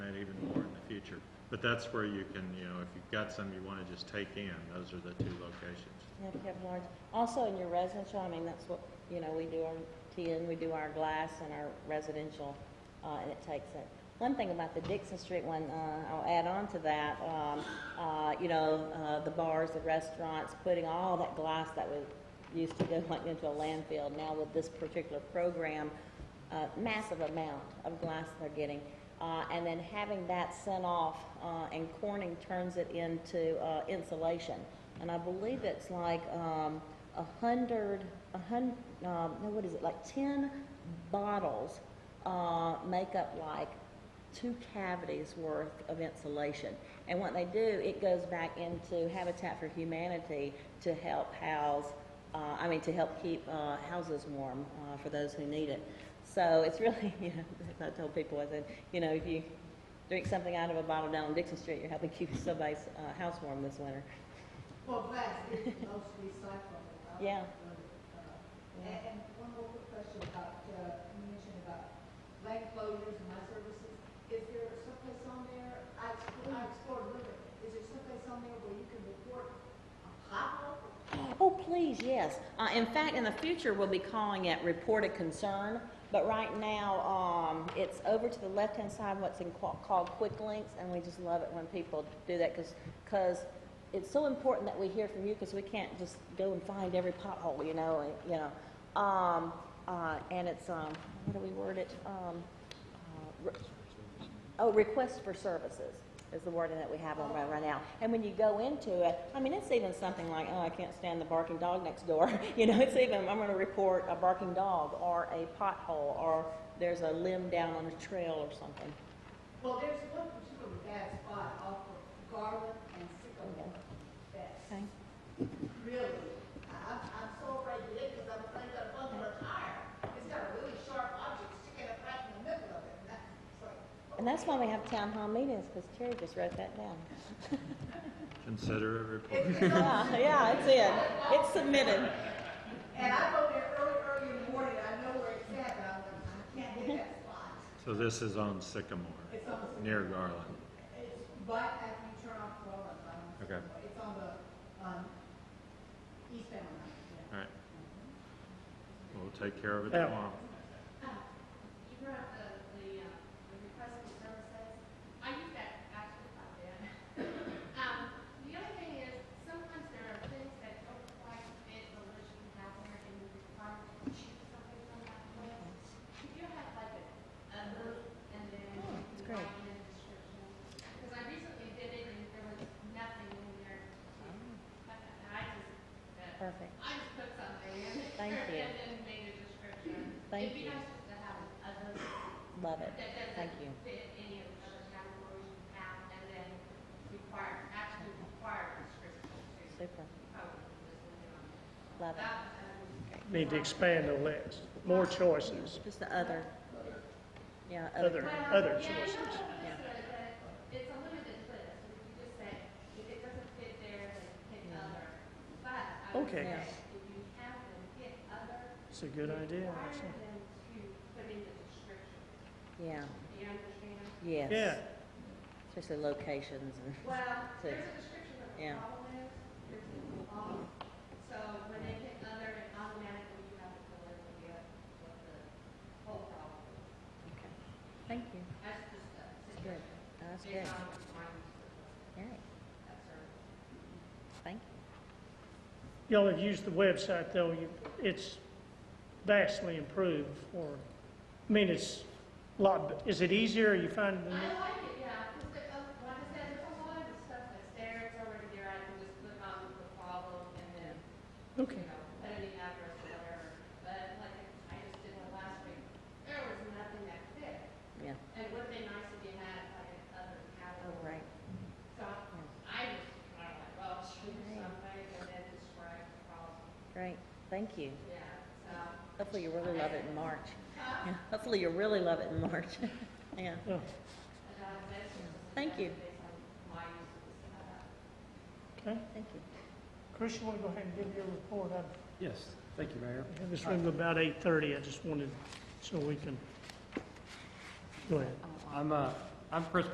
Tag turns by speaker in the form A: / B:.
A: But that's where you can, you know, if you've got some you wanna just take in, those are the two locations.
B: Yeah, if you have large, also in your residential, I mean, that's what, you know, we do our tin, we do our glass and our residential, uh, and it takes it. One thing about the Dixon Street one, uh, I'll add on to that, um, uh, you know, uh, the bars, the restaurants, putting all that glass that was, used to go like into a landfill, now with this particular program, uh, massive amount of glass they're getting. Uh, and then having that sent off, uh, and Corning turns it into, uh, insulation. And I believe it's like, um, a hundred, a hun, um, no, what is it, like ten bottles, uh, make up like two cavities worth of insulation. And what they do, it goes back into Habitat for Humanity to help house, uh, I mean, to help keep uh, houses warm uh, for those who need it. So it's really, you know, as I told people, I said, you know, if you drink something out of a bottle down on Dixon Street, you're helping keep somebody's uh, house warm this winter.
C: Well, glass is most recyclable. I would
B: Yeah.
C: agree with that. And, and one more quick question about, uh, you mentioned about lane closures and my services. Is there someplace on there, I explored, I explored litter, is there someplace on there where you can report a pothole?
B: Oh, please, yes. Uh, in fact, in the future, we'll be calling it report a concern, but right now, um, it's over to the left-hand side, what's in, qua- called quick links, and we just love it when people do that, because, it's so important that we hear from you, because we can't just go and find every pothole, you know, and, you know. Um, uh, and it's, um, what do we word it? Um, uh, re- Oh, request for services is the wording that we have on right right now. And when you go into it, I mean, it's even something like, oh, I can't stand the barking dog next door. You know, it's even, I'm gonna report a barking dog or a pothole or there's a limb down on a trail or something.
C: Well, there's one particular bad spot off of Garland and Sycamore that's
B: Okay.
C: really, I- I'm, I'm so afraid to live because I'm afraid that one will tire. It's got a really sharp object sticking up right in the middle of it. And that's like,
B: And that's why we have town hall meetings, because Terry just wrote that down.
A: Consider it report.
B: Yeah, yeah, it's in. It's submitted.
C: And I go there early, early in the morning, I know where it's at, but I'm like, I can't hit that spot.
A: So this is on Sycamore,
C: It's on the,
A: near Garland.
C: it's right after you turn off Rollins, I'm,
A: Okay,
C: it's on the, um, eastbound line, yeah.
A: all right. We'll take care of it tomorrow.
D: You brought up the, the, uh, the request for services. I use that actually quite a bit. Um, the other thing is, sometimes there are things that don't quite fit the list you have there and you require to choose something from that list. Could you have like a, a list and then
B: Oh, that's great.
D: combine in description? Because I recently did it and there was nothing in there. I, I just, uh,
B: Perfect.
D: I just put something in.
B: Thank you.
D: And then made a description.
B: Thank
D: It'd be
B: you.
D: nice just to have a list
B: Love it.
D: that doesn't
B: Thank you.
D: fit any of the other categories you have, and then require, actually require prescription to
B: Super.
D: probably just leave it on.
B: Love
D: That
B: it.
D: was, um,
E: Need to expand the list, more choices,
B: Just the other. Yeah,
E: other,
B: other.
E: other
D: Yeah, you
E: choices.
D: know, it's a- that it's a limited list, if you just say, if it doesn't fit there, then pick
B: Yeah.
D: other. But I would
E: Okay.
D: say, if you have them pick other,
E: It's a good idea,
D: require
E: actually.
D: them to put in the description,
B: Yeah,
D: do you understand?
B: yes.
E: Yeah,
B: Especially locations and.
D: Well,
B: So-
D: there's a description of the
B: yeah.
D: problem is, there's a law, so when they hit other, it automatically you have to fill in with the, with the whole problem. is.
B: Okay. Thank you.
D: That's just a
B: That's good.
D: situation.
B: That's
D: They
B: good.
D: found it fine, so
B: All right.
D: that's our-
B: Thank you.
E: y'all have used the website, though, You- it's vastly improved for, I mean, it's a lot, is it easier, you find?
D: I like it, yeah, because the, uh, like I said, there's a lot of stuff that's there, it's already there, I can just click on the problem and then,
E: Okay,
D: you know, put in the address or whatever. But like I just did it last week, there was nothing that fit.
B: Yeah.
D: And would it be nice if you had like another
B: All
D: catalog?
B: right.
D: So I just kind of like, well, shoot something and then describe the problem.
B: Great. Thank you.
D: Yeah, so.
B: Hopefully you really love it in March.
D: Uh-huh.
B: Yeah. Hopefully you really love it in March. Yeah.
D: and
E: yeah.
D: I was actually just
B: Thank you.
D: based on my use of this, uh,
E: okay.
B: Thank you.
E: Chris, you want to go ahead and give your report? I
F: Yes, thank you, Mayor.
E: have this room about 8:30, I just wanted, so we can, go ahead.
F: I'm, uh, I'm Chris